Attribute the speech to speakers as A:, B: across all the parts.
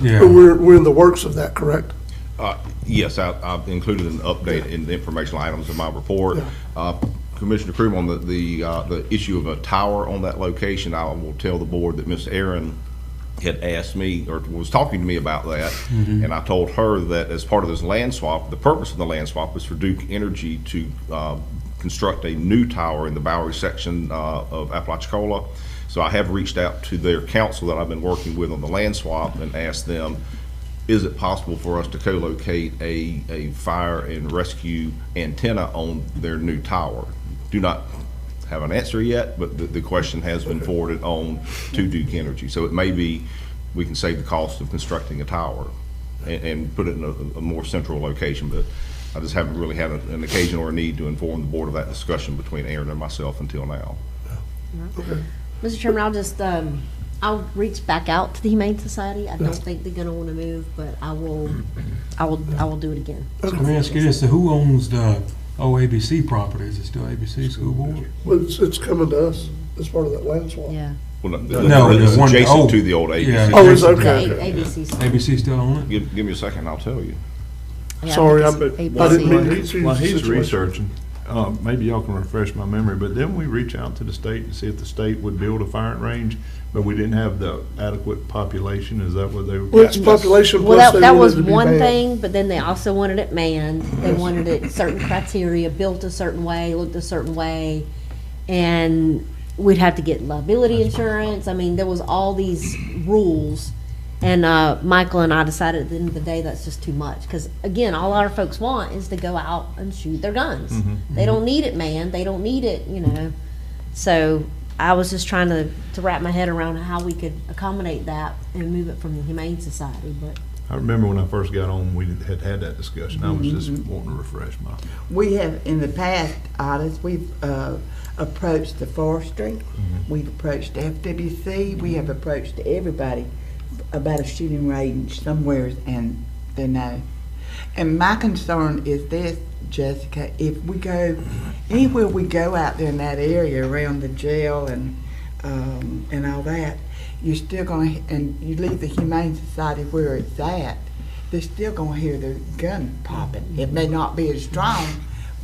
A: Yeah.
B: But we're, we're in the works of that, correct?
C: Uh, Yes, I- I've included an update in the informational items of my report.
B: Yeah.
C: Uh, Commissioner Crew, on the, the, uh, the issue of a tower on that location, I will tell the board that Ms. Aaron had asked me, or was talking to me about that, and I told her that as part of this land swap, the purpose of the land swap was for Duke Energy to uh, construct a new tower in the Bowery section uh, of Apalachicola. So I have reached out to their council that I've been working with on the land swap and asked them, is it possible for us to co-locate a, a fire and rescue antenna on their new tower? Do not have an answer yet, but the, the question has been forwarded on to Duke Energy. So it may be, we can save the cost of constructing a tower and, and put it in a, a more central location, but I just haven't really had a- an occasion or a need to inform the board of that discussion between Aaron and myself until now.
B: Okay.
D: Mr. Chairman, I'll just, um, I'll reach back out to the Humane Society. I don't think they're gonna wanna move, but I will, I will, I will do it again.
A: So let me ask you this, so who owns the OABC property? Is it still ABC School Board?
B: But it's, it's coming to us as part of that land swap.
D: Yeah.
C: Well,
A: No, the
C: It's
A: one-
C: adjacent
A: oh,
C: to the old
A: yeah.
C: ABC.
B: Oh, it's
D: The
B: okay.
D: A- ABC. 's-
A: ABC still own it?
C: Give, give me a second, I'll tell you.
D: yeah,
B: Sorry, I
D: think
B: but
D: it's
B: I
D: ABC.
B: didn't mean to see
E: While
B: the
E: he's
B: situation.
E: researching, uh, maybe y'all can refresh my memory, but didn't we reach out to the state and see if the state would build a firing range? But we didn't have the adequate population, is that what they? were-
B: Well, it's population
D: Well,
B: plus
D: that,
B: they
D: that
B: wanted
D: was
B: to be
D: one
B: manned.
D: thing, but then they also wanted it manned. They wanted it certain criteria, built a certain way, looked a certain way. And we'd have to get liability insurance. I mean, there was all these rules. And, uh, Michael and I decided at the end of the day, that's just too much. Cause again, all our folks want is to go out and shoot their guns.
B: Mm-hmm,
D: They don't need it manned. They don't need it, you know. So I was just trying to, to wrap my head around how we could accommodate that and move it from the Humane Society, but
E: I remember when I first got on, we had had that discussion, I was just
B: Mm-hmm.
E: wanting to refresh my.
F: We have, in the past audits, we've uh, approached the forestry, we've approached FWC, we have approached everybody about a shooting range somewhere, and they know. And my concern is this, Jessica, if we go, anywhere we go out there in that area around the jail and, um, and all that, you're still gonna, and you leave the Humane Society where it's at, they're still gonna hear the gun popping. It may not be as strong,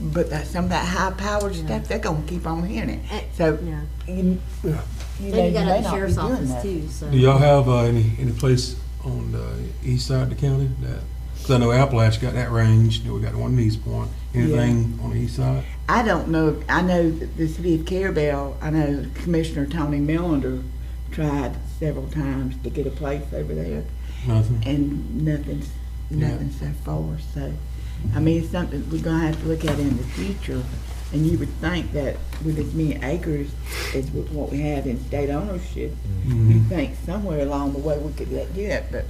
F: but that, some of that high-powered stuff, they're gonna keep on hearing
D: Eh,
F: it. So,
D: yeah.
F: you, you know,
D: Then
F: you
D: you got
F: may
D: at the
F: not be
D: sheriff's
F: doing
D: office
F: that.
D: too, so.
A: Do y'all have uh, any, any place on the east side of the county that, because I know Appalachia got that range, you know, we got one in East Point. Anything on the east side?
F: I don't know, I know that the city of Carabel, I know Commissioner Tony Melander tried several times to get a place over there,
A: Nothing?
F: and nothing's,
A: Yeah.
F: nothing so far, so, I mean, it's something we're gonna have to look at in the future. And you would think that with as many acres as with what we have in state ownership, you
A: Mhm.
F: think somewhere along the way we could let do it, but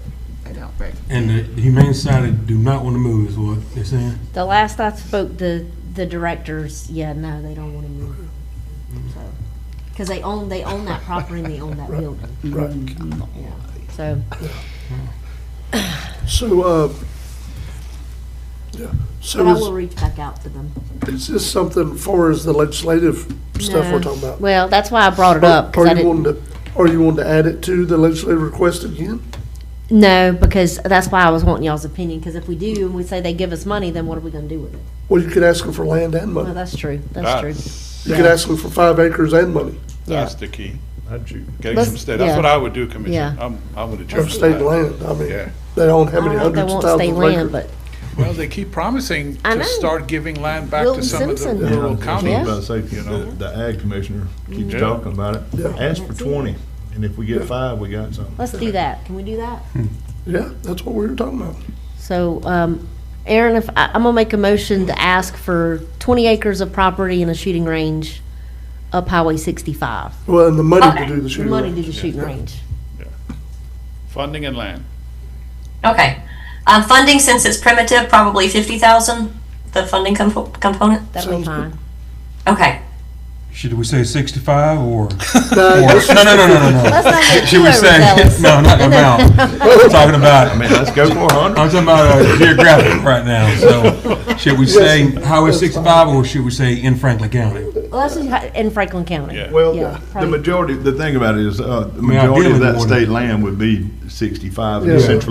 F: I don't reckon.
A: And the the Humane Society do not want to move is what they're saying?
D: The last I spoke, the, the directors, yeah, no, they don't want to move. So, Cause they own, they own that property and they own that building,
B: Right.
D: so.
B: So, uh, yeah,
D: But I will
B: so
D: reach back out to them.
B: is, is this something far as the legislative stuff
D: No.
B: we're talking about?
D: Well, that's why I brought it up, cause I
B: Are you wanting
D: didn't,
B: to, are you wanting to add it to the legislative request again?
D: no, because that's why I was wanting y'all's opinion, cause if we do and we say they give us money, then what are we gonna do with it?
B: Well, you could ask them for land and
D: Well,
B: money.
D: that's true, that's true.
B: You could ask them for five acres and money,
D: Yeah.
G: That's the key.
E: I'd shoot.
G: Getting
D: Let's-
G: some state, that's what
D: yeah.
G: I would do, Commissioner.
D: Yeah.
G: I'm, I'm with the
B: or
G: church.
B: state land. I mean,
G: Yeah.
B: they own how
D: I don't
B: many
D: know if they
B: hundreds of
D: want
B: thousands
D: state
B: of
D: land,
B: acres?
D: but
G: Well, they keep promising
D: I
G: to
D: know.
G: start giving land back
D: Wilton
G: to some of the
D: Simpson.
E: Yeah, I
G: rural
E: was just about to
G: counties.
E: say,
G: you know?
E: the, the ag commissioner keeps
G: Yeah.
E: talking about it,
B: Yeah.
E: ask for
D: That's it.
E: twenty, and if we get five, we got something.
D: let's do that, can we do that?
B: Yeah, that's what we were talking about.
D: So, um, Aaron, if, I, I'm gonna make a motion to ask for twenty acres of property and a shooting range up Highway sixty-five.
B: Well, and the money to do the shooting.
D: Money to
B: range.
D: the shooting range.
G: Funding and land.
H: Okay. Um, funding, since it's primitive, probably fifty thousand, the funding compo- component.
D: That'll be
B: Sounds good.
D: fine.
H: Okay.
A: Should we say 65 or?
B: No,
A: or-
B: this
A: No, no, no, no, no, no.
D: Let's not get
A: Should
D: too
A: we say,
D: overzealous.
A: no, not the amount. We're talking about
E: I mean, let's go for a hundred.
A: I'm talking about uh, geographic right now, so should we say Highway 65 or should we say in Franklin County?
D: Well, that's just hi- in Franklin County.
G: Yeah.
E: Well,
D: Yeah,
E: the
D: probably.
E: majority, the thing about it is, uh, the
A: mean, ideally
E: majority of
A: we
E: that
A: wanna-
E: state land would be sixty-five in
B: Yeah.
E: central